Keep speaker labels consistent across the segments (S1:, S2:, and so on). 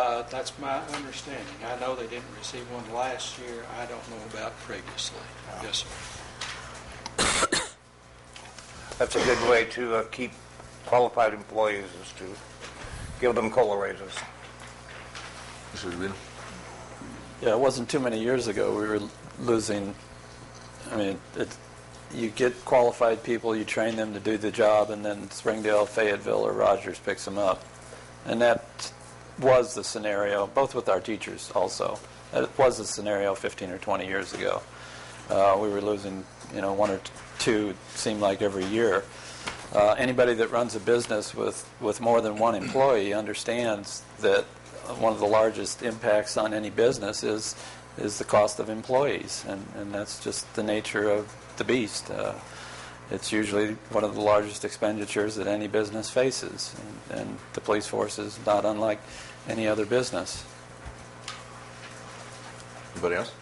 S1: Uh, That's my understanding. I know they didn't receive one last year. I don't know about previously. Yes, sir.
S2: That's a good way to uh, keep qualified employees is to give them COLA raises.
S3: Mr. DeVito?
S4: Yeah, it wasn't too many years ago, we were losing, I mean, it, you get qualified people, you train them to do the job, and then Springdale, Fayetteville, or Rogers picks them up. And that was the scenario, both with our teachers also. That was the scenario 15 or 20 years ago. Uh, we were losing, you know, one or t- two, it seemed like every year. Uh, anybody that runs a business with, with more than one employee understands that one of the largest impacts on any business is, is the cost of employees, and, and that's just the nature of the beast. Uh, it's usually one of the largest expenditures that any business faces, and, and the police force is not unlike any other business.
S3: Anybody else?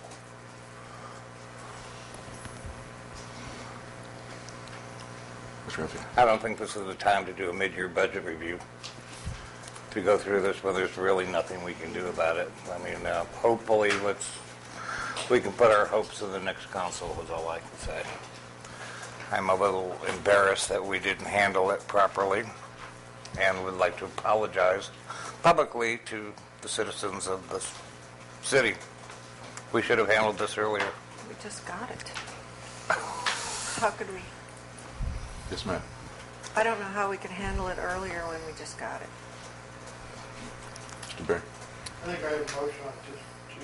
S3: Mr. Renfro?
S2: I don't think this is the time to do a mid-year budget review, to go through this when there's really nothing we can do about it. I mean, uh, hopefully, let's, we can put our hopes in the next council, is all I can say. I'm a little embarrassed that we didn't handle it properly, and would like to apologize publicly to the citizens of this city. We should have handled this earlier.
S5: We just got it. How could we,
S3: Yes, ma'am.
S5: I don't know how we could handle it earlier when we just got it.
S3: Mr. Barry?
S6: I think I have a motion on to, to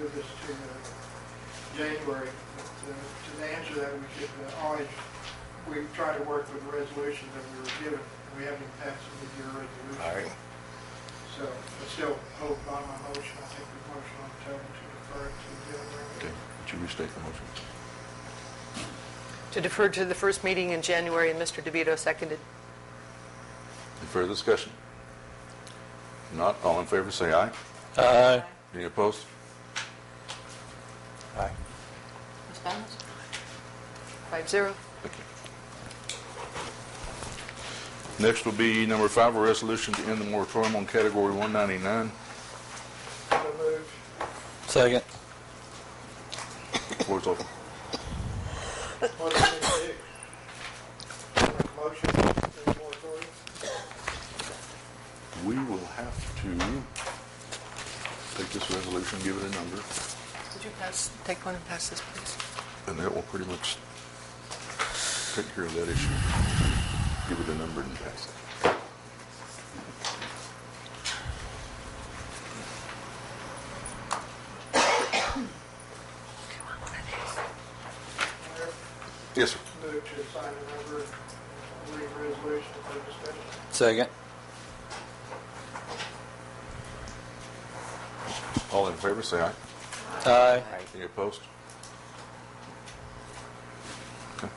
S6: move this to uh, January. But, uh, To answer that, we could uh, always, we try to work with the resolution that we were given. We haven't passed it with your
S2: All
S6: resolution.
S2: right.
S6: So I still hold by my motion. I think the motion on the table to defer it to
S3: Okay,
S6: January.
S3: would you restate the motion?
S7: To defer to the first meeting in January, and Mr. DeVito seconded.
S3: Any further discussion? Not, all in favor, say aye.
S4: Uh,
S3: Any opposed?
S2: Aye.
S7: Ms. Bowles? Five zero.
S3: Thank you. Next will be number five, a resolution to end the moratorium on Category 199.
S6: So moved.
S4: second.
S3: Floor is open.
S6: What do we do? Make a Motion, to the moratorium?
S3: We will have to take this resolution, give it a number,
S7: Could you pass, take one and pass this, please?
S3: and that will pretty much take care of that issue. Give it a number and pass it. Yes, sir.
S6: Move to assign a number, and read resolution for discussion.
S4: Second.
S3: All in favor, say aye.
S4: Aye.
S3: Any opposed? Okay.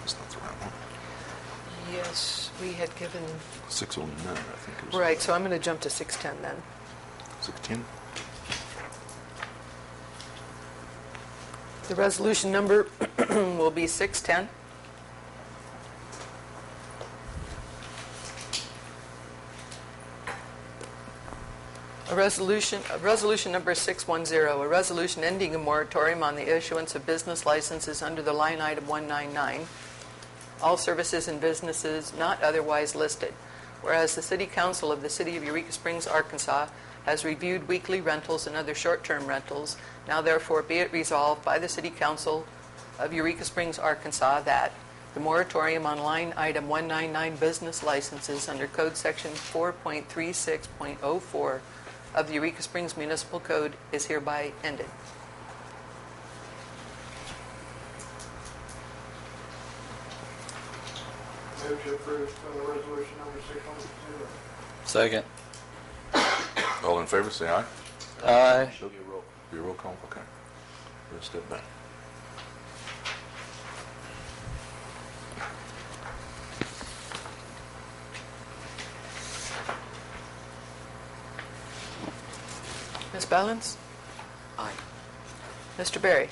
S3: That's not the right one.
S7: Yes, we had given,
S3: 609, I think it was.
S7: right, so I'm going to jump to 610 then.
S3: 610?
S7: The resolution number will be 610. A resolution, uh, resolution number 610, a resolution ending a moratorium on the issuance of business licenses under the line item 199, all services and businesses not otherwise listed. Whereas the City Council of the City of Eureka Springs, Arkansas has reviewed weekly rentals and other short-term rentals, now therefore be it resolved by the City Council of Eureka Springs, Arkansas that the moratorium on line item 199 business licenses under Code Section 4.36.04 of the Eureka Springs Municipal Code is hereby ended.
S6: Move to approve uh, resolution number six one zero.
S4: Second.
S3: All in favor, say aye.
S4: Aye.
S3: Show your roll. Your roll call, okay. We'll step back.
S7: Ms. Balance? Aye. Mr. Berry?